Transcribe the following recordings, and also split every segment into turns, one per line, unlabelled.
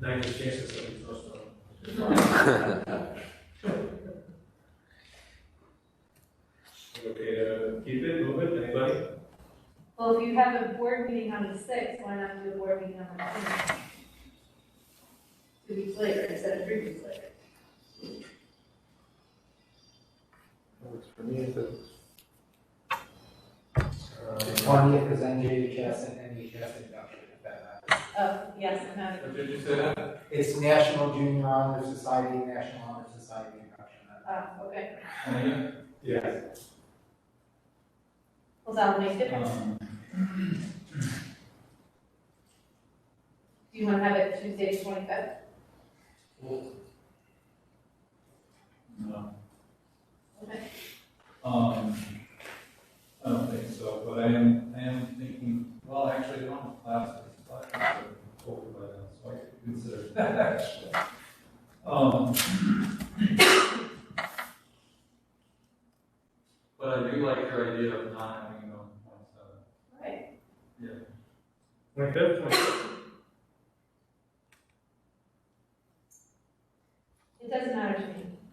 Ninety chances that we trust them. Okay, to keep it, move it, anybody?
Well, if you have a board meeting on the sixth, why not do a board meeting on the tenth? Two weeks later instead of three weeks later.
Works for me if it's.
Um,
Twentieth is NJHS and NHS induction, if that matters.
Oh, yes, I'm having,
What did you say that?
It's National Junior Honor Society, National Honor Society induction.
oh, okay.
Yeah.
Well, that'll make a difference.
Uh-huh.
Do you want to have it Tuesday, twenty-fifth?
No.
Okay.
Um, I don't think so, but I am, I am thinking, well, actually, I don't have classes, but I have to over by then, so I could consider that actually. Um. But I do like your idea of not having it on one seven.
Right.
Twenty-fifth,
It doesn't matter to me.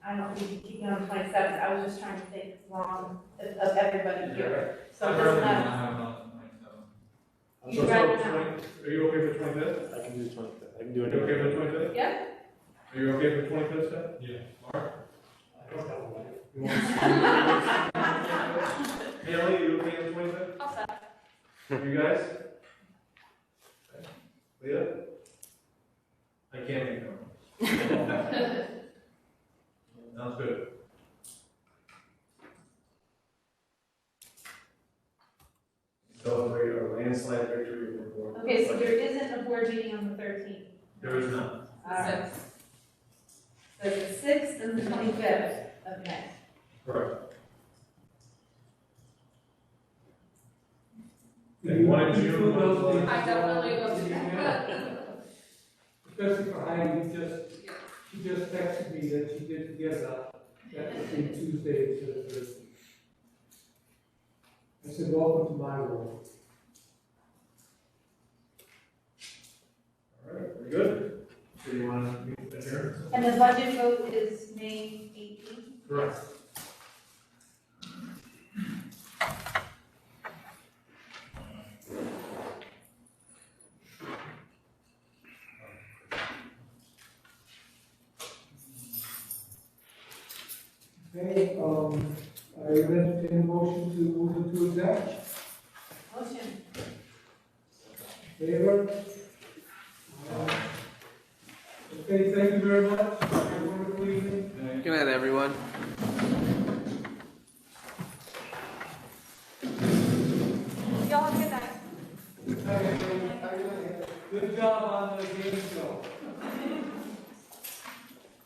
I don't think you keep it on twenty-seventh. I was just trying to think as long of, of everybody here. So
I'd
I'm
rather
just
not
not,
have it on the twenty-seventh.
You'd rather not.
Are you okay for twenty-fifth?
I can do twenty-fifth, I can do
Are
it.
you okay for twenty-fifth?
Yeah.
Are you okay for twenty-fifth, Seth?
Yeah.
I don't know.
You want to- Haley, you okay on twenty-fifth?
I'll stop.
You guys? Leah? I can't make them. Sounds good. Celebrate our landslide victory over Bordeaux.
Okay, so there isn't a board meeting on the thirteenth.
There is none.
Alright. So the sixth and the twenty-fifth of May.
Correct. And one in June, one in July.
I definitely will do
Especially for Heidi, just, she just texted me that she did get up, that would be Tuesday instead of Thursday. I said, welcome to my world.
All right, very good. So you want to meet the chair?
And the budget vote is May eighteenth.
Correct.
Okay, um, I would entertain a motion to move into exec,
Motion.
favor? Uh, Okay, thank you very much, have a wonderful evening.
Then I
Good night, everyone.
Y'all have a good night.
Good job on the game show.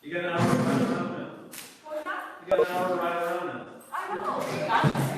You got an hour to ride around now.
Well, not,
You got an hour to ride around now.
Oh, I don't know, I